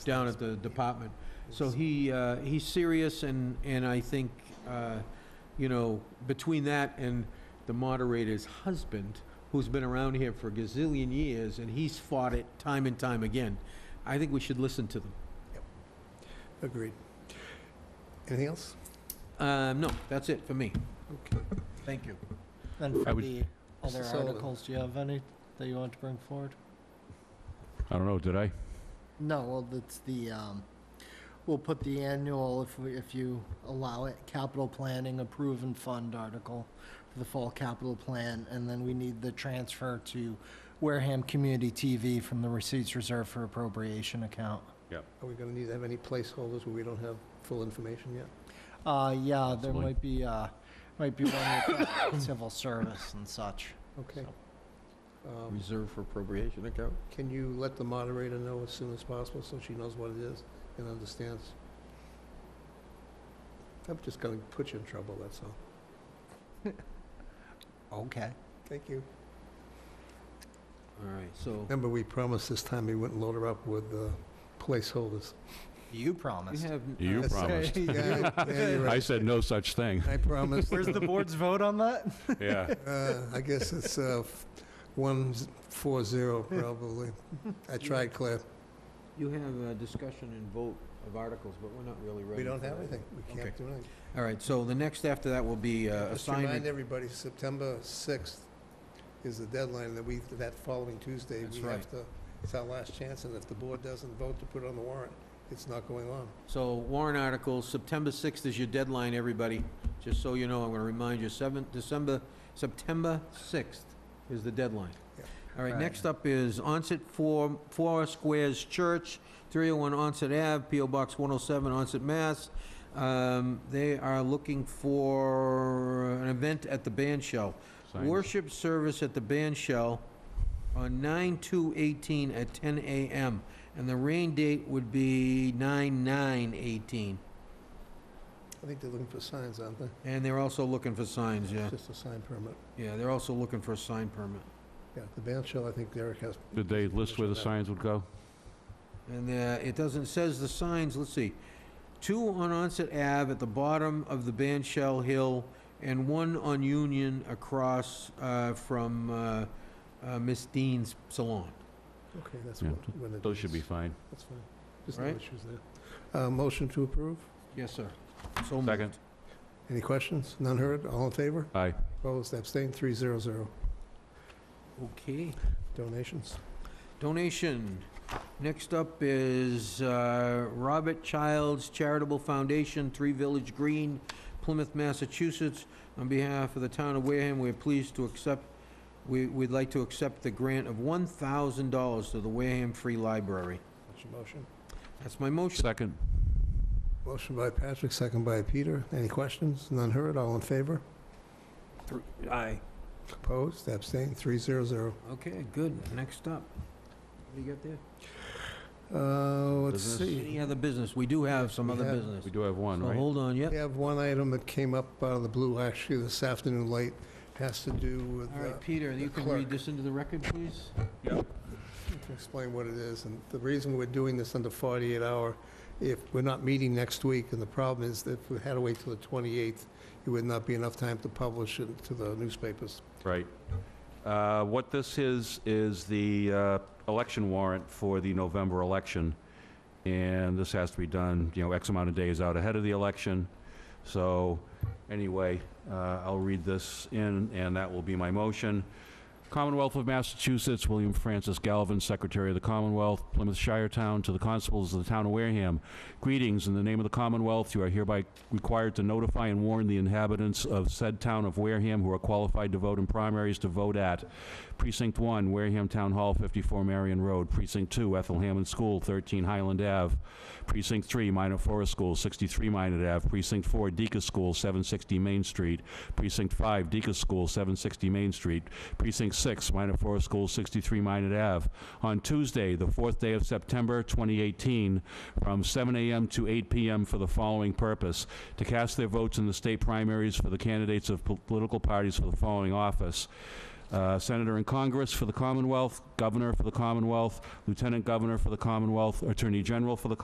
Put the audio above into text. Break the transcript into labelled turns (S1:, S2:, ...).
S1: down at the department. So he, uh, he's serious, and, and I think, uh, you know, between that and the moderator's husband, who's been around here for a gazillion years, and he's fought it time and time again, I think we should listen to them.
S2: Agreed. Anything else?
S1: Uh, No, that's it for me. Thank you.
S3: Then
S4: I
S3: for
S4: would-
S3: the other
S2: Mr. Sullivan.
S3: articles, do you have any that you want to bring forward?
S4: I don't know, did I?
S3: No, well, it's the, um, we'll put the annual, if we, if you allow it, capital planning approve and fund article for the fall capital plan, and then we need the transfer to Wareham Community TV from the receipts reserved for appropriation account.
S2: Are we going to need to have any placeholders where we don't have full information yet?
S3: Uh, yeah, there
S4: Possibly.
S3: might be, uh, might be one with uh, civil service and such.
S2: Okay. Um,
S1: Reserve for appropriation account.
S2: Can you let the moderator know as soon as possible so she knows what it is and understands? I'm just going to put you in trouble, that's all.
S3: Okay.
S2: Thank you.
S1: All right, so
S2: Remember, we promised this time we wouldn't load her up with uh, placeholders.
S3: You
S1: you
S3: promised.
S1: have.
S4: You promised.
S2: Yeah, yeah, you're
S4: I
S2: right.
S4: said no such thing.
S2: I promised.
S3: Where's the board's vote on that?
S4: Yeah.
S2: Uh, I guess it's uh, f- one z- four zero probably. I tried, Claire.
S1: You have a discussion and vote of articles, but we're not really ready.
S2: We don't
S1: for
S2: have
S1: that.
S2: anything. We can't
S1: Okay.
S2: do anything.
S1: All right, so the next after that will be uh,
S2: Just to remind
S1: assignment.
S2: everybody, September sixth is the deadline that we, that following Tuesday,
S1: That's
S2: we have to, it's our last chance, and if the board doesn't vote to put it on the warrant, it's not going on.
S1: So warrant articles, September 6th is your deadline, everybody. Just so you know, I'm going to remind you, 7th, December, September 6th is the deadline.
S2: Yeah.
S1: All right,
S3: Right.
S1: next up is Onset Four, Four Squares Church, 301 Onset Ave, PO Box 107, Onset, Mass. Um, They are looking for an event at the band shell.
S4: Signs.
S1: Worship service at the band shell on 9/2/18 at 10 a.m. And the rain date would be 9/9/18.
S2: I think they're looking for signs, aren't they?
S1: And they're also looking for signs, yeah.
S2: It's Just a sign permit.
S1: Yeah, they're also looking for a sign permit.
S2: Yeah, the band shell, I think Derek has.
S4: Did they list where the signs would go?
S1: And uh, it doesn't, says the signs, let's see, two on Onset Ave at the bottom of the Ban Shell Hill and one on Union across uh, from uh, uh, Miss Dean's salon.
S2: Okay, that's
S4: Yeah,
S2: what, when it
S4: Those should
S2: is.
S4: be fine.
S2: That's fine. Just no
S1: Right.
S2: issues there. Uh, motion to approve?
S1: Yes, sir. So moved.
S4: Second?
S2: Any questions? None heard? All in favor?
S4: Aye.
S2: Opposed? Abstained? Three zero zero.
S1: Okay.
S2: Donations?
S1: Donation. Next up is uh, Robert Childs Charitable Foundation, Three Village Green, Plymouth, Massachusetts. On behalf of the town of Wareham, we're pleased to accept, we- we'd like to accept the grant of $1,000 to the Wareham Free Library.
S2: That's your motion.
S1: That's my motion.
S4: Second?
S2: Motion by Patrick, second by Peter. Any questions? None heard? All in favor?
S1: Aye.
S2: Opposed? Abstained? Three zero zero.
S1: Okay, good. Next up. What do you got there?
S2: Uh, let's
S4: Business.
S2: see.
S1: Any other business? We do have some other
S2: We have-
S1: business.
S4: We do have one,
S1: So
S4: right?
S1: hold on,
S2: We
S1: yep.
S2: have one item that came up out of the blue actually this afternoon late. Has to do with,
S1: All
S2: uh,
S1: right, Peter, you can
S2: clerk.
S1: read this into the record, please?
S2: to explain what it is. And the reason we're doing this under 48 hour, if we're not meeting next week, and the problem is that if we had to wait till the 28th, it would not be enough time to publish it to the newspapers.
S4: Right. Uh, What this is, is the uh, election warrant for the November election, and this has to be done, you know, X amount of days out ahead of the election. So, anyway, uh, I'll read this in, and that will be my motion. Commonwealth of Massachusetts, William Francis Galvin, Secretary of the Commonwealth, Plymouth Shire Town, to the constables of the town of Wareham. Greetings, in the name of the Commonwealth, you are hereby required to notify and warn the inhabitants of said town of Wareham who are qualified to vote in primaries to vote at Precinct 1, Wareham Town Hall, 54 Marion Road, Precinct 2, Ethel Hammond School, 13 Highland Ave, Precinct 3, Minor Forest School, 63 Minor Ave, Precinct 4, Deacon School, 760 Main Street, Precinct 5, Deacon School, 760 Main Street, Precinct 6, Minor Forest School, 63 Minor Ave. On Tuesday, the 4th day of September 2018, from 7 a.m. to 8 p.m. for the following purpose: to cast their votes in the state primaries for the candidates of po- political parties for the following office: uh, Senator in Congress for the Commonwealth, Governor for the Commonwealth, Lieutenant Governor for the Commonwealth, Attorney General for the